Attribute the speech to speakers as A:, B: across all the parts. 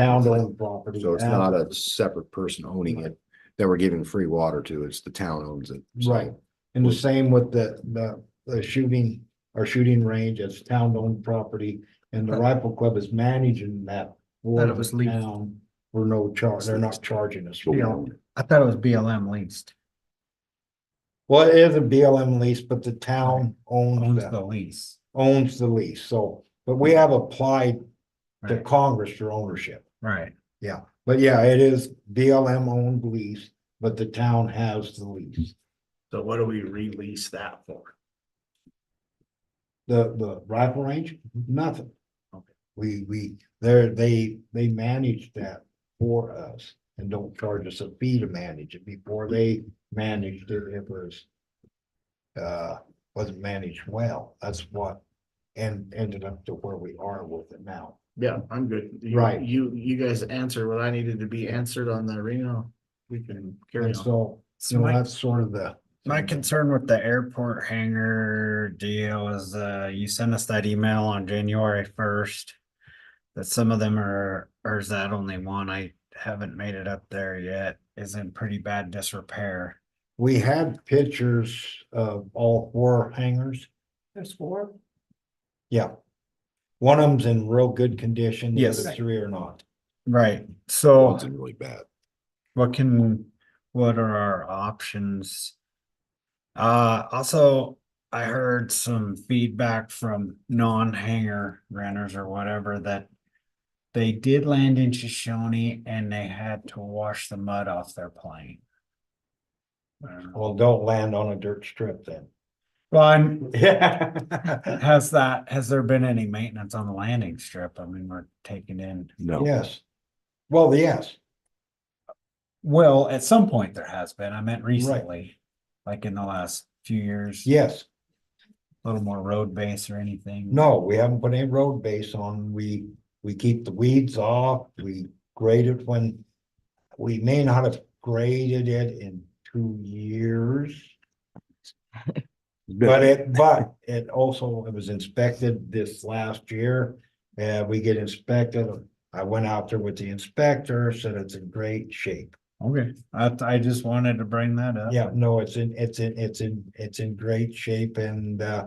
A: town owned property.
B: So it's not a separate person owning it that we're giving free water to. It's the town owns it. So
A: Right, and the same with the, the, the shooting, our shooting range, it's town owned property, and the rifle club is managing that.
C: Thought it
A: for
C: was
A: the
C: leased.
A: town For no charge, they're not charging us.
B: we
A: for
C: Yeah.
A: it.
B: own it.
C: I thought it was BLM leased,
A: Well, it is a BLM lease, but the town owns
D: Oh,
C: owns
A: the,
C: the lease.
A: owns the lease, so, but we have applied to
C: Right,
A: Congress for ownership.
C: right.
A: But yeah, it is BLM owned lease, but the town has the lease,
D: So what do we release that for?
A: the, the rifle range, nothing.
D: Mm-hmm. Okay.
A: We, we, they're, they, they manage that for us and don't charge us a fee to manage it before they managed it, it was. Uh, wasn't managed well, that's what, and ended up to where we are with it now.
D: Yeah, I'm good. You-
A: Right.
D: You, you guys answer what I needed to be answered on the arena. We can carry
A: And
D: on.
A: so,
C: So
A: you know,
C: my,
A: that's sort of the.
C: my concern with the airport hangar deal is, uh, you sent us that email on January first. That some of them are, or is that only one? I haven't made it up there yet, is in pretty bad disrepair.
A: We had pictures of all four hangars.
E: There's four.
A: Yeah. One of them's in real good condition. the
C: Yes.
A: other Three are not.
C: Right, so.
B: It's in really bad.
C: What can, what are our options? Uh, also, I heard some feedback from non-hanger renters or whatever that. They did land in Shoshone and they had to wash the mud off their plane. Uh,
A: Well, don't land on a dirt strip then.
C: Well, I'm,
A: Yeah.
C: has that, has there been any maintenance on the landing strip? I mean, we're taking in,
B: No.
A: Yes. Well, yes,
C: well, at some point there has been, I meant recently. Like in the last few years.
A: yes.
C: a little more road base or anything.
A: No, we haven't put any road base on. We, we keep the weeds off. We grade it when. We may not have graded it in two years. But it, but it also, it was inspected this last year, and we get inspected. I went out there with the inspector, said it's in great shape.
C: Okay, I, I just wanted to bring that up.
A: Yeah, no, it's in, it's in, it's in, it's in great shape and, uh,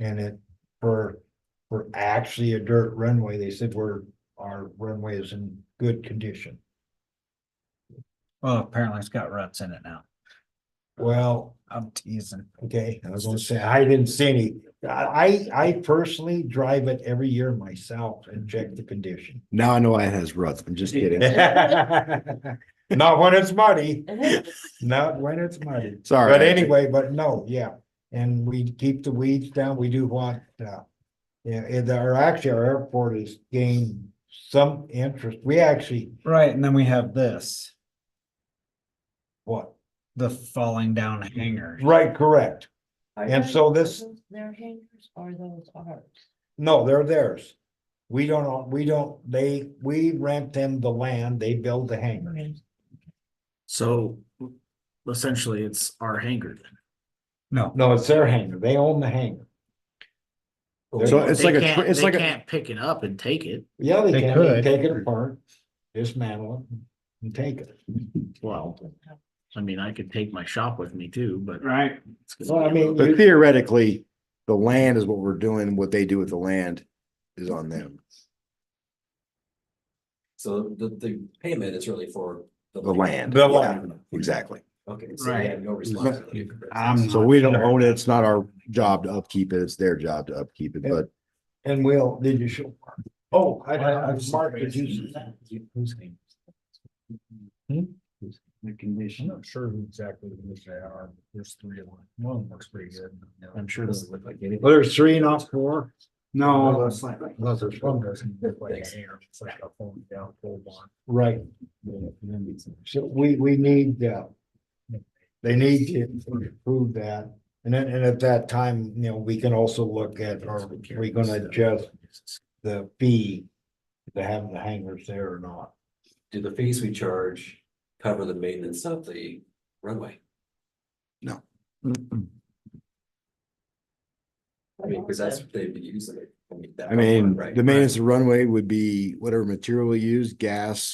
A: and it, for, for actually a dirt runway, they said we're, our runway is in good condition.
C: Well, apparently it's got ruts in it now.
A: Well,
C: I'm teasing.
A: okay, I was gonna say, I didn't see any. I, I I personally drive it every year myself and check the condition.
B: Now I know it has ruts. I'm just kidding.
A: Not when it's muddy, not when it's muddy.
B: Sorry.
A: But anyway, but no, yeah, and we keep the weeds down, we do want, uh. Yeah, and our, actually, our airport has gained some interest, we actually,
C: Right, and then we have this,
A: what,
C: the falling down hanger.
A: right, correct.
E: Are
A: And
E: those-
A: so
E: are
A: this-
E: those Their hangers or those ours?
A: No, they're theirs. We don't, own- we don't, they, we rent them the land, they build the hangar.
D: So essentially, it's our hangar. then.
C: No,
A: No, it's their hangar, they own the hangar.
B: So it's
D: They
B: like a
D: can't-
B: tr- it's
D: they
B: like a-
D: Can't pick it up and take it.
A: Yeah, they
C: They
A: can, they can
C: could.
A: take it apart, dismantle it, and take it.
D: Well, I mean, I could take my shop with me too, but.
C: right,
D: it's gonna
A: Well, I
D: be a
A: mean,
D: little-
B: But theoretically, the land is what we're doing. What they do with the land is on them.
F: So the, the payment is really for.
B: The land.
A: The land.
B: Exactly.
F: Okay, so we have no responsibility.
A: Mm-hmm.
F: for that.
C: I'm
B: So we don't own it. It's not our job to upkeep it. It's their job to upkeep it, but
A: And Will, did you show? Mark? Oh, I, I, I- Mark, did you? Hmm?
D: Whose name?
C: The condition.
A: not sure exactly who they are, there's three of them, one of them looks pretty good.
D: I'm sure this
F: Look like anything.
A: Well, there's three and not four. Oh.
C: No,
A: Unless there's one doesn't look like a hair, it's like a fold down, fold on. Right. So we, we need, uh, they need to prove that. And then, and at that time, you know, we can also look at, are we gonna adjust the fee to have the hangers there or not?
F: Do the fees we charge cover the maintenance of the runway? I mean, because that's what they'd be using it. that
B: I mean,
F: right,
B: the
F: right.
B: maintenance of runway would be whatever material we use, gas,